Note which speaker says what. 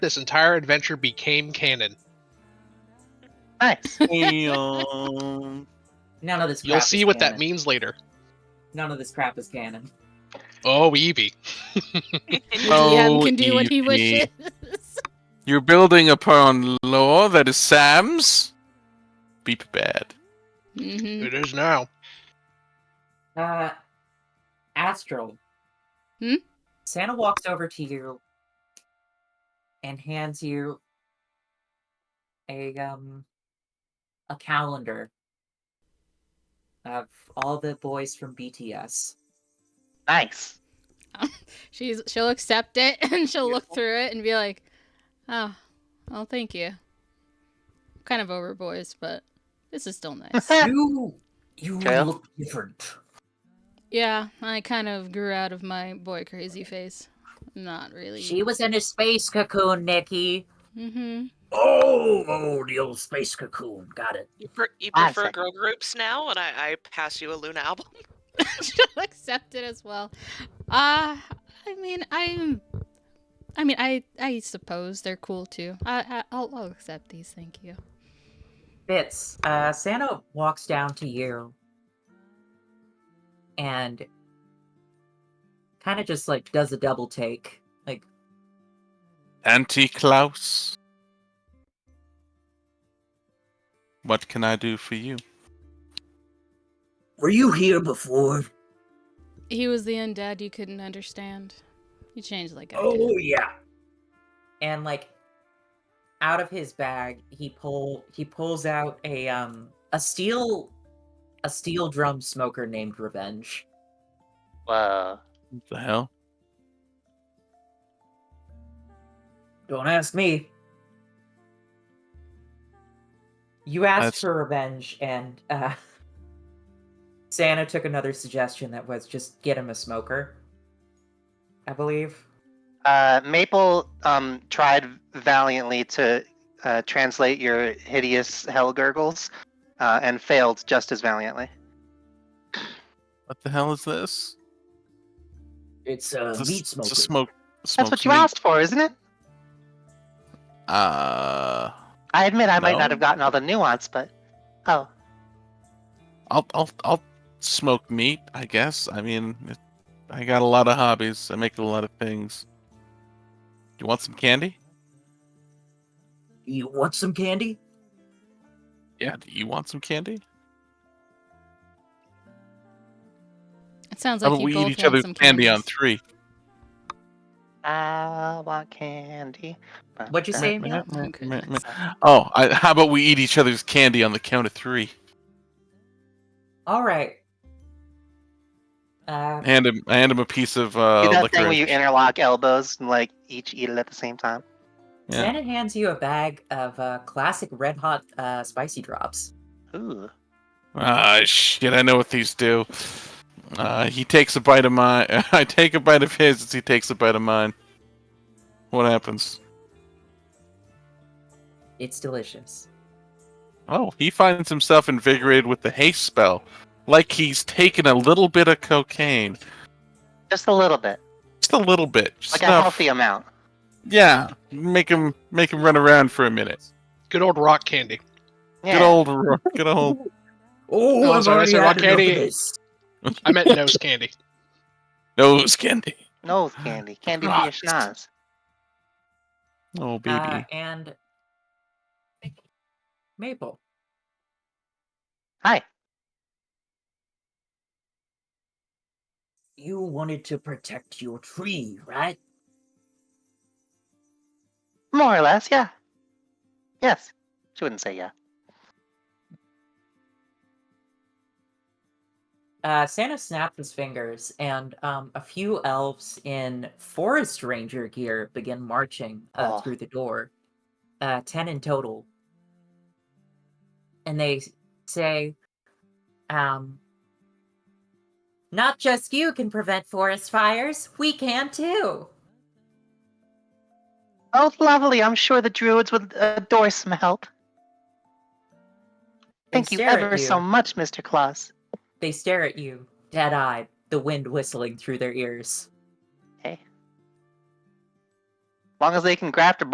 Speaker 1: this entire adventure became canon.
Speaker 2: Nice.
Speaker 3: Damn.
Speaker 4: None of this. Crap
Speaker 1: You'll
Speaker 4: is
Speaker 1: see what that
Speaker 4: canon.
Speaker 1: means later.
Speaker 4: None of this crap is canon.
Speaker 1: Oh, Evie.
Speaker 3: Oh,
Speaker 5: DM can do what he wishes.
Speaker 3: You're building upon lore that is Sam's. Be prepared.
Speaker 4: Mm-hmm.
Speaker 5: hmm
Speaker 1: It is now.
Speaker 4: Uh, Astral.
Speaker 5: Hmm?
Speaker 4: Santa walks over to you and hands you a um a calendar of all the boys from BTS.
Speaker 2: Nice.
Speaker 5: She's she'll accept it and she'll look through it and be like, "Oh, well, thank you." Kind of over boys, but this is still nice.
Speaker 4: You you
Speaker 3: Kale?
Speaker 4: look different.
Speaker 5: yeah, I kind of grew out of my boy crazy face. Not really.
Speaker 4: She was in a space cocoon, Nikki.
Speaker 5: Mm-hmm.
Speaker 4: Oh, oh, the old space cocoon. Got it.
Speaker 6: You, pre- you
Speaker 2: Classic.
Speaker 6: prefer girl groups now, and I, I pass you a Luna album.
Speaker 5: she'll accept it as well. Uh I mean, I'm. I mean, I I suppose they're cool too. I, I I'll, I'll accept these. Thank you.
Speaker 4: Fitz, uh, Santa walks down to you and kind of just like does a double take. Like,
Speaker 3: Anti Klaus. What can I do for you?
Speaker 4: were you here before?
Speaker 5: He was the undead you couldn't understand. You changed like I did.
Speaker 4: Oh, yeah. And like, out of his bag, he pull he pulls out a um a steel a steel drum smoker named Revenge.
Speaker 2: Whoa.
Speaker 3: What the hell?
Speaker 4: Don't ask me. You asked
Speaker 3: That's-
Speaker 4: for revenge, and uh, Santa took another suggestion that was just get him a smoker. I believe.
Speaker 2: Uh, Maple um, tried valiantly to uh, translate your hideous hell gurgles uh, and failed just as valiantly.
Speaker 3: What the hell is this?
Speaker 4: It's a
Speaker 3: It's a, s- it's a smoke.
Speaker 2: That's
Speaker 3: smoked
Speaker 2: what you
Speaker 3: meat.
Speaker 2: asked for, isn't it?
Speaker 3: Uh,
Speaker 2: I admit I might
Speaker 3: No.
Speaker 2: not have gotten all the nuance, but oh,
Speaker 3: I'll I'll I'll smoke meat. I guess. I mean, it, I got a lot of hobbies. I make a lot of things. You want some candy?
Speaker 4: You want some candy?
Speaker 3: Yeah. Do you want some candy?
Speaker 5: It sounds
Speaker 3: How
Speaker 5: like
Speaker 3: about
Speaker 5: you
Speaker 3: we
Speaker 5: both
Speaker 3: eat each
Speaker 5: want
Speaker 3: other's
Speaker 5: some
Speaker 3: candy on
Speaker 5: candies.
Speaker 3: three?
Speaker 2: I want candy. Uh-huh.
Speaker 4: What'd you say?
Speaker 5: Mel? Okay, nice.
Speaker 3: Oh, I, how about we eat each other's candy on the count of three?
Speaker 4: All right. Uh,
Speaker 3: Hand him, I hand him a piece of uh,
Speaker 2: Do that
Speaker 3: liquor.
Speaker 2: thing where you interlock elbows and like each eat it at the same time.
Speaker 3: Yeah.
Speaker 4: Santa hands you a bag of uh, classic red hot uh, spicy drops.
Speaker 2: Ooh.
Speaker 3: Ah, shit! I know what these do. Uh, he takes a bite of mine. I take a bite of his as he takes a bite of mine. What happens?
Speaker 4: It's delicious.
Speaker 3: Oh, he finds himself invigorated with the haste spell, like he's taken a little bit of cocaine,
Speaker 2: Just a little bit.
Speaker 3: just a little bit, just
Speaker 2: Like a
Speaker 3: enough.
Speaker 2: healthy amount.
Speaker 3: Yeah, make him make him run around for a minute.
Speaker 1: Good old rock candy.
Speaker 2: Yeah.
Speaker 3: Good old, ro- good old.
Speaker 4: Oh,
Speaker 1: I'm sorry, I said rock candy.
Speaker 4: this.
Speaker 1: I meant nose candy.
Speaker 3: nose candy.
Speaker 2: Nose candy. Candy for your
Speaker 3: Christ.
Speaker 2: schnoz.
Speaker 3: Oh, baby.
Speaker 4: Uh, and Maple.
Speaker 2: Hi.
Speaker 4: You wanted to protect your tree, right?
Speaker 2: More or less, yeah. Yes. She wouldn't say yeah.
Speaker 4: Uh, Santa snapped his fingers, and um, a few elves in forest ranger gear begin marching uh,
Speaker 2: Aw.
Speaker 4: through the door, uh, 10 in total. And they s- say, um, Not just you can prevent forest fires, we can too.
Speaker 2: Oh, lovely. I'm sure the druids would adore some help.
Speaker 4: They
Speaker 2: Thank you
Speaker 4: stare at
Speaker 2: ever so
Speaker 4: you.
Speaker 2: much, Mr. Claus.
Speaker 4: They stare at you, dead eyed, the wind whistling through their ears.
Speaker 2: As long as they can graft a